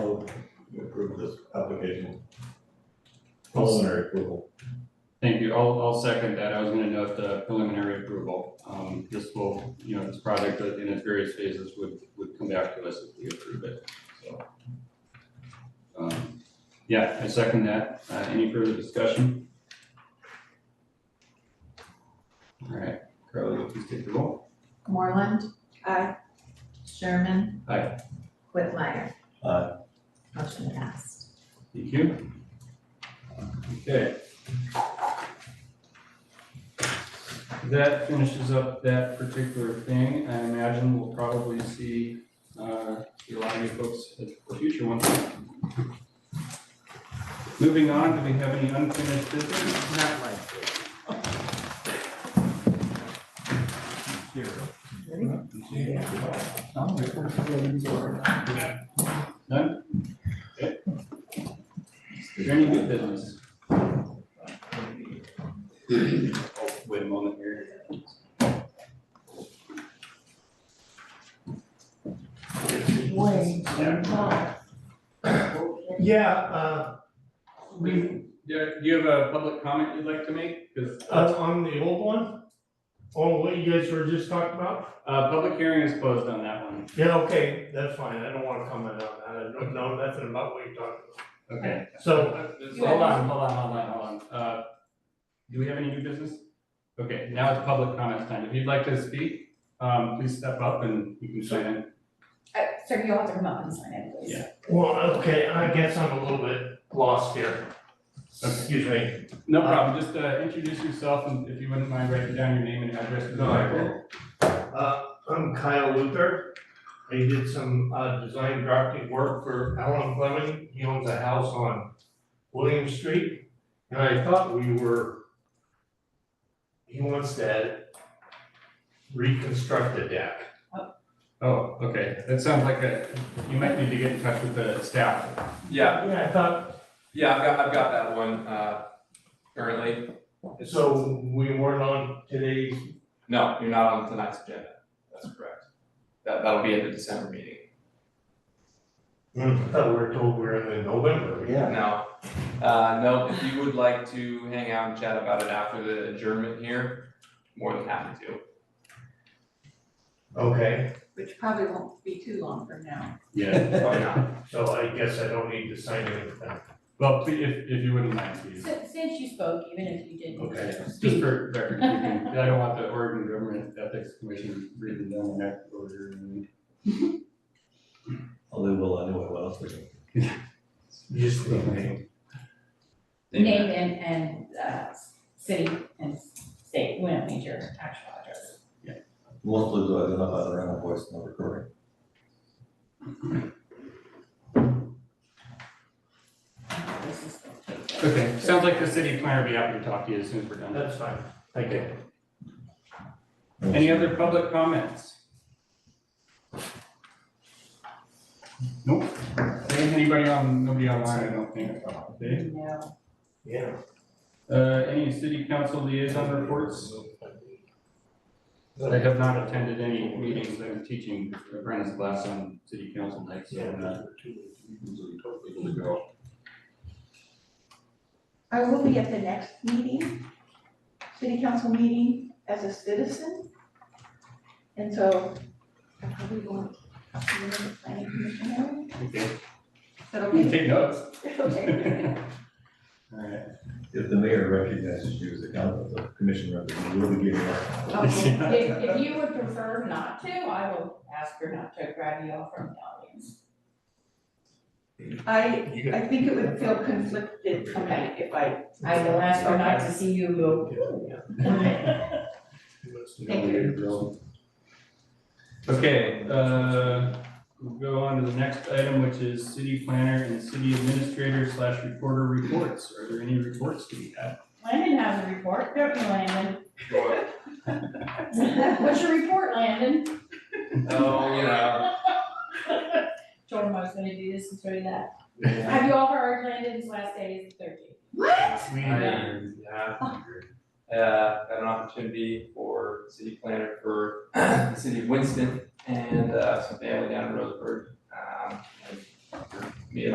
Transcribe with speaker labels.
Speaker 1: this application. Preliminary approval.
Speaker 2: Thank you. I'll, I'll second that. I was gonna note the preliminary approval. Um, this will, you know, this project in its various phases would, would come back to us if we approve it, so. Um, yeah, I second that. Uh, any further discussion? All right, Carly, please take the roll.
Speaker 3: Moreland. Aye. Sherman.
Speaker 2: Aye.
Speaker 3: Whitmire.
Speaker 1: Aye.
Speaker 3: Motion passed.
Speaker 2: Thank you. Okay. That finishes up that particular thing. I imagine we'll probably see, uh, a lot of you folks at the future ones. Moving on, do we have any unfinished business?
Speaker 4: Not likely.
Speaker 2: None? Okay. Is there any new business? Oh, Wait a moment here.
Speaker 5: Wayne,
Speaker 2: Yeah.
Speaker 4: Yeah, uh, we,
Speaker 2: Do do you have a public comment you'd like to make? Because
Speaker 4: uh, on the old one, on what you guys were just talking about?
Speaker 2: Uh, public hearing is closed on that one.
Speaker 4: Yeah, okay, that's fine, I don't wanna comment on that, I don't know nothing about what you're talking
Speaker 2: Okay.
Speaker 4: about. So,
Speaker 2: Uh, Hold on, hold on, hold on, hold on. Uh, do we have any new business? Okay, now it's public comments time. If you'd like to speak, um, please step up and you can sign in.
Speaker 6: Uh, sir, you'll have to come up and sign in, please.
Speaker 2: Yeah.
Speaker 4: well, okay, I guess I'm a little bit lost here. Excuse me.
Speaker 2: No problem, just, uh, introduce yourself and if you wouldn't mind writing down your name and address. for the
Speaker 4: No, I
Speaker 2: record.
Speaker 4: Uh, I'm Kyle Luther. I did some, uh, design drafting work for Alan Fleming. He owns a house on William Street. And I thought we were, he wants to reconstruct the deck.
Speaker 2: Oh, okay, that sounds like a, you might need to get in touch with the staff.
Speaker 7: Yeah,
Speaker 4: Yeah, I thought,
Speaker 7: yeah, I've got, I've got that one, uh, currently. It's-
Speaker 4: so we weren't on today's,
Speaker 7: No, you're not on tonight's agenda. That's correct. That, that'll be at the December meeting.
Speaker 4: I thought we were told we were in the November.
Speaker 1: Yeah.
Speaker 7: Now, uh, no, if you would like to hang out and chat about it after the adjournment here, more than happy to.
Speaker 4: Okay,
Speaker 6: Which probably won't be too long from now.
Speaker 2: Yeah,
Speaker 7: Probably not.
Speaker 4: so I guess I don't need to sign anything.
Speaker 2: well, please, if, if you wouldn't mind, please.
Speaker 6: Since, since you spoke, even if you didn't.
Speaker 2: Okay, just
Speaker 6: speak.
Speaker 2: for record keeping, I don't want the Oregon Government Ethics Commission breathing down my neck over.
Speaker 1: Although, well, anyway, what else we can
Speaker 4: Just the name.
Speaker 6: Name and, and, uh, s- city and state, we don't need your actual address.
Speaker 1: Mostly to identify the rental voice in the recording.
Speaker 6: This is-
Speaker 2: Okay, sounds like the city planner will be happy to talk to you as soon as we're done.
Speaker 4: That's fine, thank you.
Speaker 2: Any other public comments? Nope, Ain't anybody on, nobody online, I don't think. Okay.
Speaker 6: No,
Speaker 4: Yeah.
Speaker 2: Uh, any city council liaison reports? I have not attended any meetings, I'm teaching apprentice class on city council night, so uh, I'm not usually able to go.
Speaker 8: I will be at the next meeting, city council meeting as a citizen. And so I probably won't be in the planning commission area.
Speaker 2: Okay,
Speaker 8: That'll
Speaker 2: you
Speaker 8: be,
Speaker 2: can take notes.
Speaker 8: that'll be-
Speaker 2: Alright.
Speaker 1: If the mayor recognizes you as a council, the commission representative, we'll be giving our.
Speaker 6: okay, if, if you would prefer not to, I will ask her not to grab you all from the audience.
Speaker 8: I,
Speaker 4: You got
Speaker 8: I think it would feel conflicted for me if I.
Speaker 6: I will ask her not to see you go.
Speaker 8: Thank
Speaker 2: Okay, uh, we'll go on to the next item, which is city planner and city administrator slash reporter reports. Are there any reports to be had?
Speaker 6: Landon has a report, don't you, Landon? What's your report, Landon?
Speaker 7: Oh, you know,
Speaker 6: Told him I was gonna do this and show you that. Have you all heard Landon's last day is the thirteenth?
Speaker 8: What?
Speaker 2: We,
Speaker 7: I, yeah, uh, got an opportunity for city planner for the city of Winston and, uh, some family down in Roseburg. Um, and we're